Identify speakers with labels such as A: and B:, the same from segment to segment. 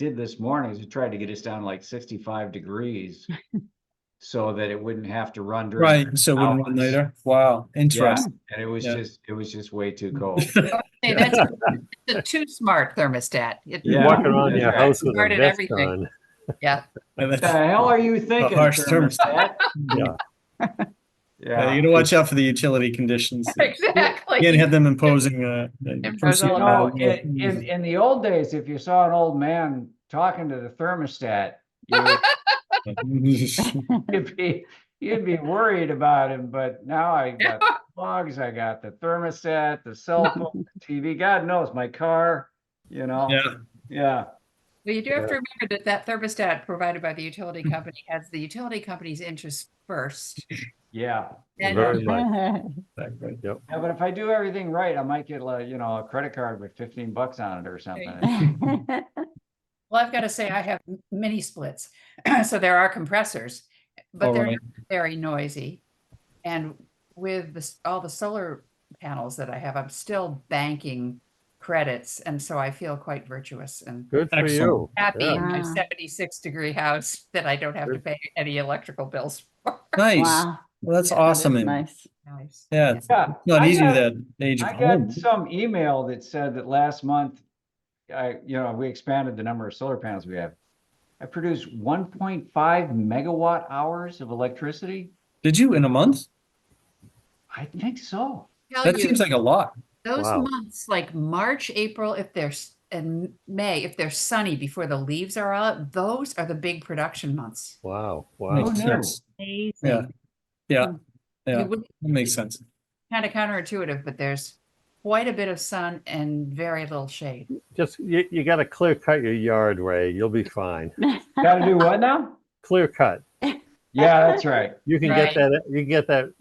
A: did this morning is we tried to get us down to like sixty-five degrees. So that it wouldn't have to run during.
B: Right, so we run
A: hours.
B: later. Wow,
A: Yeah,
B: interesting.
A: and it was
B: Yeah.
A: just, it was just way too cold.
C: Hey, that's it's a too smart thermostat. It-
A: Yeah.
D: Walking around
A: Yeah.
D: your house with a
C: Guarded
D: vest
C: everything.
D: on.
C: Yeah,
B: And
A: The
B: then-
A: hell are you thinking?
B: harsh
A: thermostat?
D: Yeah.
B: Yeah, You
A: Yeah.
B: gotta watch out for the utility conditions. You can't
C: exactly.
B: have them imposing, uh. uh,
C: Impose all
A: You
B: perceived
A: know,
B: value.
A: in, in, in the old days, if you saw an old man talking to the thermostat, you would You'd be, you'd be worried about him, but now I got logs, I got the thermostat, the cell phone, the TV, God knows, my car, you know,
B: Yeah,
A: yeah.
C: Well, you do have to remember that that thermostat provided by the utility company has the utility company's interest first.
A: Yeah,
C: And
D: Very much.
B: exactly.
A: Yeah, but if I do everything right, I might get like, you know, a credit card with fifteen bucks on it or something.
C: Well, I've got to say, I have m- mini splits, so there are compressors, but
B: All
C: they're
B: right.
C: not very noisy. And with the, s- all the solar panels that I have, I'm still banking credits, and so I feel quite virtuous and
D: Good for
B: Excellent.
D: you.
C: happy in my
E: Yeah.
C: 76 degree house that I don't have to
D: Good.
C: pay any electrical bills for.
B: Nice.
E: Wow,
B: Well, that's
E: that
B: awesome.
E: is
B: and-
E: Nice.
C: Nice.
B: Yeah, it's
A: Yeah,
B: not
A: I
B: easy
A: got-
B: with that age of
A: I got
B: home.
A: some email that said that last month, I, you know, we expanded the number of solar panels we have. I produced one point five megawatt hours of electricity.
B: Did you in a month?
A: I think so.
C: Tell
B: That
C: Oh, you,
B: seems like a lot.
C: Those
D: Wow.
C: months like March, April, if they're s- and May, if they're sunny before the leaves are out, those are the big production months.
D: Wow, wow.
B: Makes
A: no.
B: sense. Yeah.
C: Amazing.
B: Yeah, yeah,
C: You
B: that
C: would
B: makes sense.
C: kind of counterintuitive, but there's quite a bit of sun and very little shade.
D: Just, you, you gotta clear cut your yard, Ray. You'll be fine.
A: Gotta do what now?
D: Clear cut.
A: Yeah, that's right.
D: You can
C: Right.
D: get that, you can get that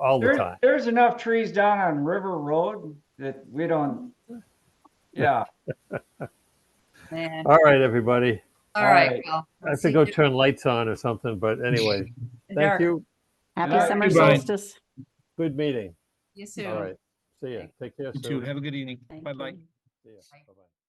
D: all the
A: There-
D: time.
A: there's enough trees down on River Road that we don't. Yeah,
C: Man.
D: All right, everybody.
C: All right.
A: right.
C: well,
D: I
C: we'll
D: have to
C: see
D: go
C: you
D: turn lights on or something, but anyway,
C: in the
D: thank
C: dark.
D: you.
A: Yeah,
E: Happy summer
B: everybody.
E: solstice.
D: Good meeting.
C: See you
D: All
C: soon.
D: right. See ya. Take care.
B: You
D: Sue.
B: too. Have a good evening.
E: Thank
B: Bye-bye.
E: you.
D: See ya. Bye-bye.